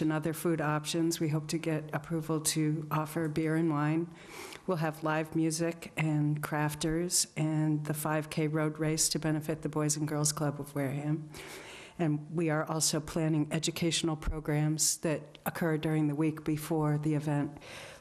and other food options. We hope to get approval to offer beer and wine. We'll have live music and crafters and the 5K road race to benefit the Boys and Girls Club of Wareham. And we are also planning educational programs that occur during the week before the event.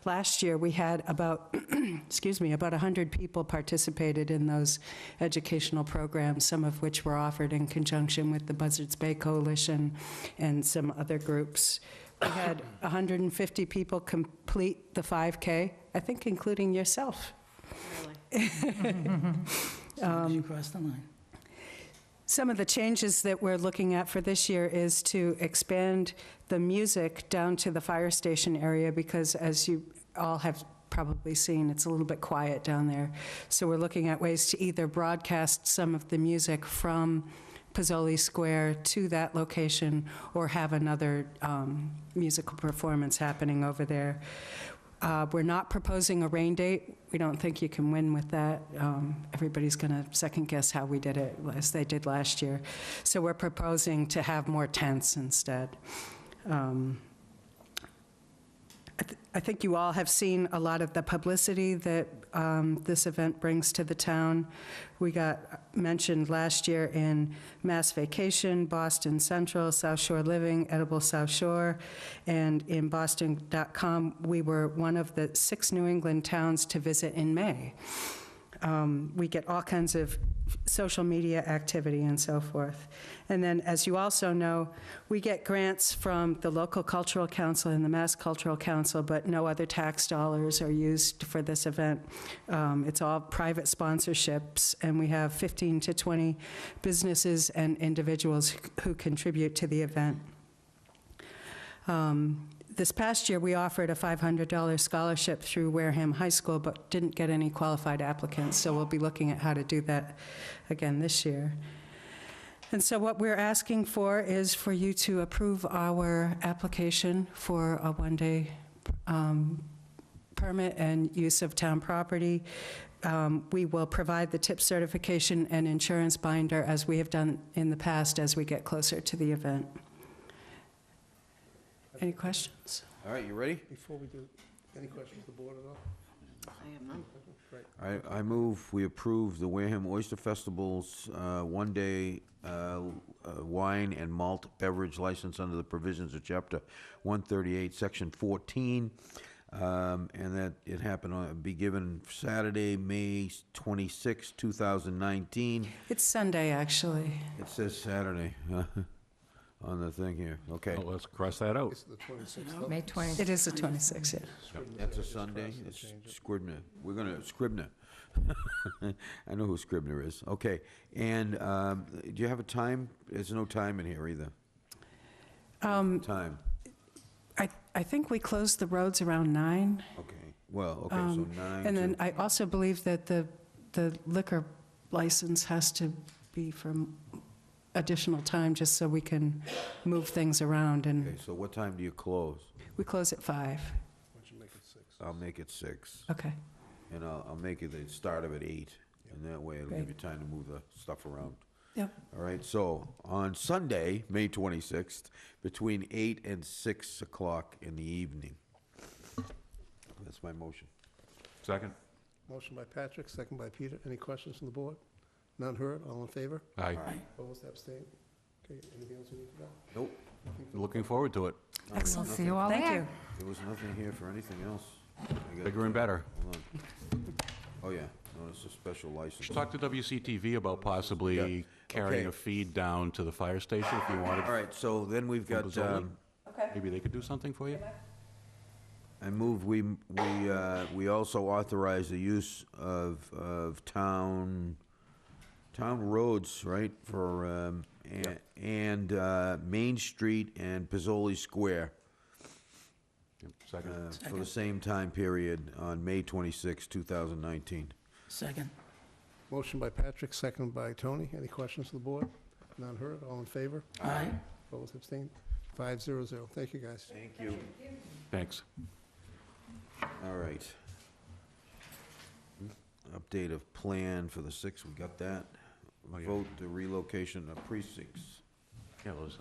Last year, we had about, excuse me, about 100 people participated in those educational programs, some of which were offered in conjunction with the Buzzards Bay Coalition and some other groups. We had 150 people complete the 5K, I think including yourself. Um, Because you crossed the line. Some of the changes that we're looking at for this year is to expand the music down to the fire station area because as you all have probably seen, it's a little bit quiet down there. So we're looking at ways to either broadcast some of the music from Pizzoli Square to that location or have another um, musical performance happening over there. Uh, We're not proposing a rain date. We don't think you can win with that. Um, Everybody's going to second-guess how we did it, as they did last year. So we're proposing to have more tents instead. Um, I th- I think you all have seen a lot of the publicity that um, this event brings to the town. We got mentioned last year in Mass Vacation, Boston Central, South Shore Living, Edible South Shore, and in Boston.com, we were one of the six New England towns to visit in May. Um, We get all kinds of social media activity and so forth. And then, as you also know, we get grants from the local cultural council and the Mass Cultural Council, but no other tax dollars are used for this event. Um, It's all private sponsorships, and we have 15 to 20 businesses and individuals who contribute to the event. Um, This past year, we offered a $500 scholarship through Wareham High School, but didn't get any qualified applicants, so we'll be looking at how to do that again this year. And so what we're asking for is for you to approve our application for a one-day um, permit and use of town property. Um, We will provide the tip certification and insurance binder, as we have done in the past, as we get closer to the event. Any questions? All right, you ready? Before we do, any questions to the board at all? I, I move we approve the Wareham Oyster Festival's uh, one-day uh, uh, wine and malt beverage license under the provisions of Chapter 138, Section 14, um, and that it happen on, be given Saturday, May 26, 2019. It's Sunday, actually. It says Saturday on the thing here. Okay. Well, Oh, Let's cross that out. It's the 26th. May 20th. It is the 26th, yeah. That's a Sunday? It's Scribner. We're gonna, Scribner. I know who Scribner is. Okay. And um, do you have a time? There's no time in here either. Um, Time. I, I think we closed the roads around nine. Okay. Well, okay, so um, nine. And to- then I also believe that the, the liquor license has to be for additional time, just so we can move things around, Okay, and so what time do you close? we close at five. I'll make it six, Okay, and I'll, I'll make it the start of at eight, and that way it'll give Great. you time to move the stuff around. yep. All right, so on Sunday, May 26th, between 8 and 6 o'clock in the evening. That's my motion. Second? Motion by Patrick, second by Peter. Any questions from the board? None heard, all in favor? Aye. Opposed, abstained? Okay, anything else we need to know? Nope, Looking forward to it. We'll see you all there. Thank you. there was nothing here for anything else. I got- Bigger and better. Hold on. Oh, yeah, no, it's a special license. Should talk to WCTV about possibly carrying Okay. a feed down to the fire station if you wanted. All right, so then we've got, Zola? um, Maybe they could do something for you? I move we, we, uh, we also authorize the use of, of town, town roads, right, for, um, and, and, uh, Main Street and Pizzoli Square, Yep, uh, Second? for the same time period on May 26, 2019. Second. Motion by Patrick, second by Tony. Any questions from the board? None heard, all in favor? Aye. Opposed, abstained? Five zero zero. Thank you, guys. Thank you. Thanks. All right. Hmm? Update of plan for the sixth, we got that. Oh, yeah. Vote the relocation of precincts. Yeah, those-